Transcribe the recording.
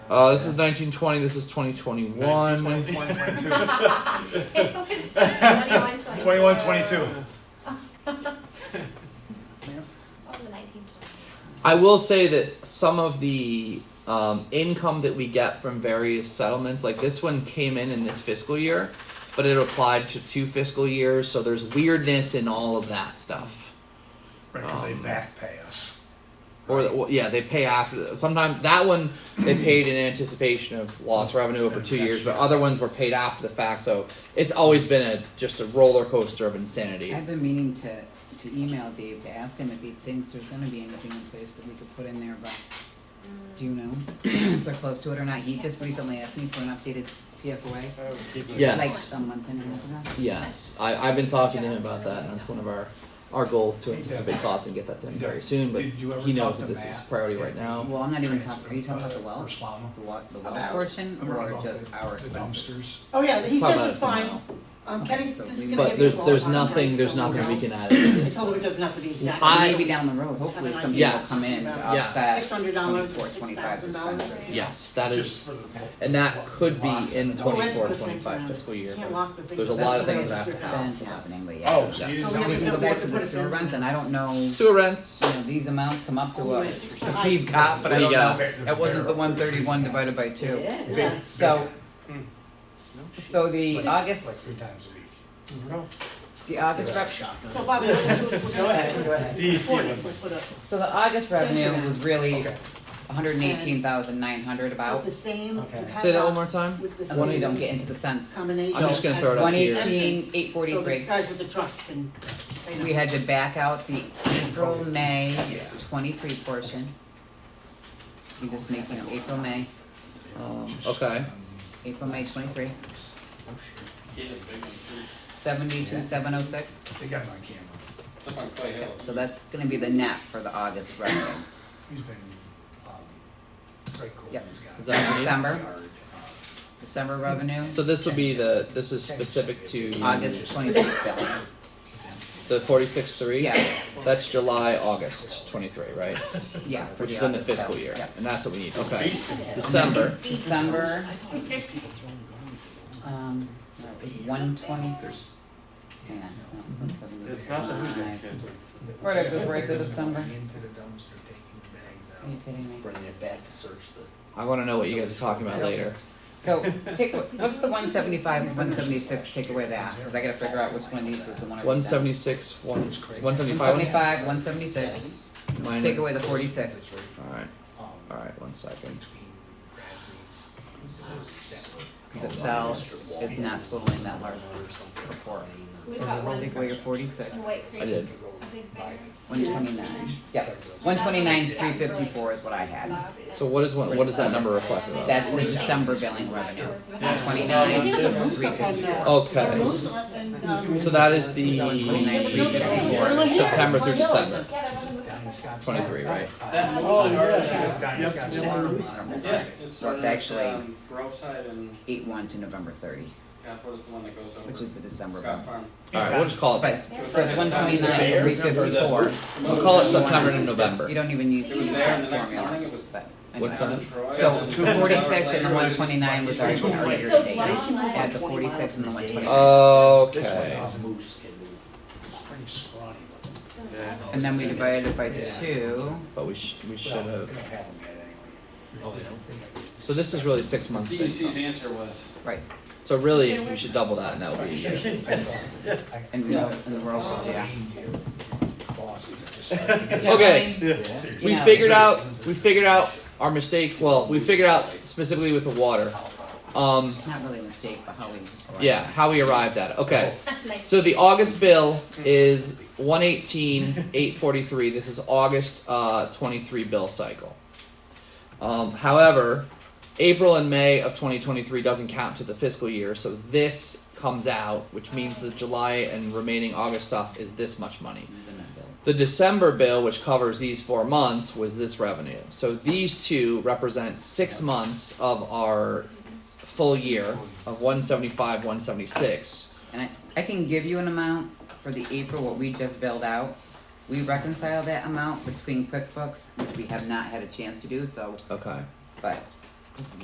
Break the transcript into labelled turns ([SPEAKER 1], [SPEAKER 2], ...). [SPEAKER 1] Uh, this is 1920. This is 2021.
[SPEAKER 2] 21,
[SPEAKER 3] It was 21, 22.
[SPEAKER 2] 22.
[SPEAKER 3] Oh, the 19.
[SPEAKER 1] I will say that some of the um, income that we get from various settlements, like this one, came in in this fiscal year, but it applied to two fiscal years. So there's weirdness in all of that stuff.
[SPEAKER 2] Right, because they
[SPEAKER 1] Um,
[SPEAKER 2] back pay us.
[SPEAKER 1] Or, or yeah, they pay after. Sometimes that one they paid in anticipation of lost revenue over two years, but other ones were paid after the fact. So it's always been a just a roller coaster of insanity.
[SPEAKER 4] I've been meaning to, to email Dave to ask him if he thinks there's gonna be anything in place that we could put in there, but do you know if they're close to it or not? He just recently asked me for an updated PFOA,
[SPEAKER 1] Yes,
[SPEAKER 4] like a month and a half ago.
[SPEAKER 1] yes. I, I've been talking to him about that, and that's one of our our goals to anticipate costs and get that to him very soon. But
[SPEAKER 2] Did you ever
[SPEAKER 1] he
[SPEAKER 2] talk
[SPEAKER 1] knows
[SPEAKER 2] to
[SPEAKER 1] that this
[SPEAKER 2] Matt
[SPEAKER 1] is priority right
[SPEAKER 2] at
[SPEAKER 1] now.
[SPEAKER 4] Well, I'm not even
[SPEAKER 2] Transfer,
[SPEAKER 4] talking, are you talking about
[SPEAKER 2] uh,
[SPEAKER 4] the wells?
[SPEAKER 2] Slama?
[SPEAKER 4] The wa- the well
[SPEAKER 5] About-
[SPEAKER 4] portion
[SPEAKER 2] Remember
[SPEAKER 4] or
[SPEAKER 2] about
[SPEAKER 4] just
[SPEAKER 2] the-
[SPEAKER 4] our
[SPEAKER 2] the
[SPEAKER 4] expenses?
[SPEAKER 2] dumpsters?
[SPEAKER 5] Oh, yeah, he
[SPEAKER 1] Probably
[SPEAKER 5] says
[SPEAKER 1] that's
[SPEAKER 5] it's fine.
[SPEAKER 1] tomorrow.
[SPEAKER 5] Um,
[SPEAKER 4] Okay,
[SPEAKER 5] Kenny's
[SPEAKER 4] so
[SPEAKER 5] just
[SPEAKER 4] we-
[SPEAKER 5] gonna
[SPEAKER 1] But
[SPEAKER 5] get
[SPEAKER 1] there's
[SPEAKER 5] people
[SPEAKER 1] there's
[SPEAKER 5] on
[SPEAKER 1] nothing
[SPEAKER 5] Monday,
[SPEAKER 1] there's
[SPEAKER 5] so
[SPEAKER 1] nothing we
[SPEAKER 5] know.
[SPEAKER 1] can add. in
[SPEAKER 5] I
[SPEAKER 1] this.
[SPEAKER 5] told him it doesn't have to be exact.
[SPEAKER 1] I-
[SPEAKER 4] Maybe down the road, hopefully some people
[SPEAKER 1] Yes.
[SPEAKER 4] come in to
[SPEAKER 1] Yes.
[SPEAKER 4] offset
[SPEAKER 5] Six hundred dollars,
[SPEAKER 4] twenty-four,
[SPEAKER 5] six
[SPEAKER 4] twenty-five
[SPEAKER 5] thousand dollars.
[SPEAKER 4] expenses.
[SPEAKER 1] Yes, that
[SPEAKER 2] Just
[SPEAKER 1] is,
[SPEAKER 2] for the-
[SPEAKER 1] and that could be in
[SPEAKER 2] Well,
[SPEAKER 5] that's
[SPEAKER 1] 24,
[SPEAKER 5] the thing,
[SPEAKER 1] 25
[SPEAKER 5] man.
[SPEAKER 1] fiscal year.
[SPEAKER 5] Can't
[SPEAKER 1] but-
[SPEAKER 5] lock the things
[SPEAKER 1] there's a
[SPEAKER 5] up.
[SPEAKER 1] lot of
[SPEAKER 5] That's
[SPEAKER 1] things
[SPEAKER 5] the
[SPEAKER 1] that have to
[SPEAKER 5] register
[SPEAKER 1] happen.
[SPEAKER 4] Been happening, but yeah.
[SPEAKER 2] Oh, so you
[SPEAKER 1] Yes.
[SPEAKER 2] didn't
[SPEAKER 5] So
[SPEAKER 2] know
[SPEAKER 4] Now we
[SPEAKER 2] we
[SPEAKER 4] can
[SPEAKER 2] could-
[SPEAKER 4] go back to
[SPEAKER 5] Put
[SPEAKER 4] the
[SPEAKER 5] it
[SPEAKER 4] sewer
[SPEAKER 5] in.
[SPEAKER 4] runs and I don't know, you
[SPEAKER 1] Sewer rents.
[SPEAKER 4] know, these amounts come up to
[SPEAKER 5] Oh,
[SPEAKER 4] us.
[SPEAKER 5] it's not-
[SPEAKER 4] We've got, but I
[SPEAKER 1] We
[SPEAKER 4] don't
[SPEAKER 1] got-
[SPEAKER 4] know, that wasn't the one thirty-one divided by two.
[SPEAKER 5] Yeah.
[SPEAKER 2] Big-
[SPEAKER 4] So,
[SPEAKER 2] big.
[SPEAKER 4] so the
[SPEAKER 2] Like-
[SPEAKER 4] August,
[SPEAKER 2] Like three times a week.
[SPEAKER 4] the August rep,
[SPEAKER 5] So Bob, we're gonna do is we're
[SPEAKER 6] Go ahead, go
[SPEAKER 5] gonna.
[SPEAKER 6] ahead.
[SPEAKER 5] report it. We'll put a-
[SPEAKER 4] so the August revenue
[SPEAKER 5] Internet.
[SPEAKER 4] was really
[SPEAKER 2] Okay.
[SPEAKER 4] hundred and eighteen thousand nine hundred
[SPEAKER 5] With
[SPEAKER 4] about,
[SPEAKER 5] the same.
[SPEAKER 6] Okay.
[SPEAKER 5] with
[SPEAKER 1] Say that one more
[SPEAKER 5] padlocks,
[SPEAKER 1] time.
[SPEAKER 5] With the
[SPEAKER 4] unless we don't
[SPEAKER 5] same
[SPEAKER 4] get into the cents.
[SPEAKER 5] combination.
[SPEAKER 1] I'm just gonna throw it up
[SPEAKER 4] One
[SPEAKER 1] here.
[SPEAKER 4] eighteen, eight
[SPEAKER 5] So the
[SPEAKER 4] forty-three.
[SPEAKER 5] guys with the trucks can. they know.
[SPEAKER 4] We had to back out the April, May twenty-three portion. You just make, you know, April, May,
[SPEAKER 1] Um, okay.
[SPEAKER 4] April, May twenty-three,
[SPEAKER 2] Oh, shit.
[SPEAKER 4] seventy-two, seven oh six.
[SPEAKER 2] They got him on camera.
[SPEAKER 4] So that's gonna be the net for the August revenue.
[SPEAKER 2] He's been, um, Craig
[SPEAKER 4] Yep.
[SPEAKER 2] Coleman's got.
[SPEAKER 1] Is that what you need?
[SPEAKER 4] December.
[SPEAKER 2] uh,
[SPEAKER 4] December revenue,
[SPEAKER 1] So this will be the this is specific to
[SPEAKER 4] August twenty-fifth,
[SPEAKER 1] the 46 3.
[SPEAKER 4] yes,
[SPEAKER 1] That's July August 23, right?
[SPEAKER 4] yeah, for
[SPEAKER 1] Which
[SPEAKER 4] the
[SPEAKER 1] is in the
[SPEAKER 4] August
[SPEAKER 1] fiscal
[SPEAKER 4] bill.
[SPEAKER 1] year.
[SPEAKER 4] Yeah.
[SPEAKER 1] And that's what we need. Okay. December.
[SPEAKER 4] December,
[SPEAKER 6] I thought it was just people throwing garbage.
[SPEAKER 4] um, one twenty, hang on, no, it's not supposed to be
[SPEAKER 7] It's not the who's in
[SPEAKER 4] five.
[SPEAKER 7] kids, it's the.
[SPEAKER 4] Right, it goes right to December.
[SPEAKER 2] Into the dumpster, taking the bags
[SPEAKER 4] Are you
[SPEAKER 2] out,
[SPEAKER 4] kidding me?
[SPEAKER 2] bringing it back to search the.
[SPEAKER 1] I want to know what you guys are talking about later.
[SPEAKER 4] So take, what's the one seventy-five and one seventy-six, take away that, cause I gotta figure out which one of these was the one I wrote down.
[SPEAKER 1] 176, one,
[SPEAKER 4] One
[SPEAKER 1] 175
[SPEAKER 4] seventy-five, one seventy-six,
[SPEAKER 1] minus.
[SPEAKER 4] take away the forty-six.
[SPEAKER 1] All right. All
[SPEAKER 2] Um,
[SPEAKER 1] right. One second.
[SPEAKER 2] between grad meetings, so that would-
[SPEAKER 4] Cause it sells, it's not totaling that large report.
[SPEAKER 3] We've got one,
[SPEAKER 4] Take away your forty-six,
[SPEAKER 3] in White Creek.
[SPEAKER 1] I did.
[SPEAKER 3] A big banner.
[SPEAKER 4] one twenty-nine, yep, one twenty-nine, three fifty-four is what I had.
[SPEAKER 1] So what is one? What does that number reflect about?
[SPEAKER 4] That's the December billing revenue, one
[SPEAKER 5] We
[SPEAKER 4] twenty-nine,
[SPEAKER 5] have the roofs
[SPEAKER 4] three
[SPEAKER 5] up on
[SPEAKER 4] fifty-four.
[SPEAKER 5] that.
[SPEAKER 1] Okay.
[SPEAKER 5] The roofs up and, um,
[SPEAKER 1] So that is the September through December
[SPEAKER 3] Yeah, that one was-
[SPEAKER 2] Down in Scottsdale. Uh,
[SPEAKER 1] 23, right?
[SPEAKER 7] That
[SPEAKER 6] Oh,
[SPEAKER 7] moves
[SPEAKER 6] yeah.
[SPEAKER 2] Down in
[SPEAKER 7] Yep.
[SPEAKER 2] Scottsdale.
[SPEAKER 7] Yes, it's
[SPEAKER 4] So it's
[SPEAKER 7] on,
[SPEAKER 4] actually-
[SPEAKER 7] um, Grove side and,
[SPEAKER 4] Eight-one to November thirty,
[SPEAKER 7] God, what is the one that goes over?
[SPEAKER 4] which is the December
[SPEAKER 7] Scott
[SPEAKER 4] one. Oh,
[SPEAKER 7] Farm.
[SPEAKER 1] All right. We'll just call it.
[SPEAKER 4] But,
[SPEAKER 1] that.
[SPEAKER 4] so it's one twenty-nine, three fifty-four,
[SPEAKER 1] We'll call it September to November.
[SPEAKER 4] you don't even use
[SPEAKER 7] It
[SPEAKER 4] the
[SPEAKER 7] was there and the next
[SPEAKER 4] formula.
[SPEAKER 7] morning it was.
[SPEAKER 4] But anyway,
[SPEAKER 1] What's on it?
[SPEAKER 7] Troy,
[SPEAKER 4] so
[SPEAKER 7] and then
[SPEAKER 4] two
[SPEAKER 7] two hours
[SPEAKER 4] forty-six and the
[SPEAKER 7] later,
[SPEAKER 4] one twenty-nine was already already
[SPEAKER 3] Those
[SPEAKER 4] irritated.
[SPEAKER 3] long lines.
[SPEAKER 4] Add the forty-six and the one twenty-nine.
[SPEAKER 1] Okay.
[SPEAKER 2] uh, Pretty scrawny, but
[SPEAKER 4] And then we divided it by two.
[SPEAKER 1] But we sh- we should
[SPEAKER 2] Well, they don't
[SPEAKER 1] have.
[SPEAKER 2] have them yet anyway.
[SPEAKER 1] So this is really six months. Based
[SPEAKER 7] DEC's
[SPEAKER 1] on.
[SPEAKER 7] E answer was,
[SPEAKER 4] Right,
[SPEAKER 1] So really, we should double that, and that would be a year.
[SPEAKER 2] I thought- I-
[SPEAKER 4] and we're, and we're also, yeah.
[SPEAKER 2] Boss, it's just starting.
[SPEAKER 1] Okay.
[SPEAKER 2] Seriously.
[SPEAKER 1] We
[SPEAKER 4] Yeah.
[SPEAKER 1] figured out. We figured out our mistake. Well, we figured out specifically with the water. Um.
[SPEAKER 4] It's not really a mistake, but how we.
[SPEAKER 1] Yeah. How we arrived at it. Okay.
[SPEAKER 3] Like,
[SPEAKER 1] So the August bill is one eighteen eight forty three. This is August uh, twenty three bill cycle. Um, however, April and May of twenty twenty three doesn't count to the fiscal year, so this comes out, which means the July and remaining August stuff is this much money.
[SPEAKER 4] It was in that bill.
[SPEAKER 1] The December bill, which covers these four months, was this revenue. So these two represent six months of our full year of 175, 176.
[SPEAKER 4] And I, I can give you an amount for the April, what we just billed out. We reconcile that amount between QuickBooks, which we have not had a chance to do, so,
[SPEAKER 1] Okay.
[SPEAKER 4] but this is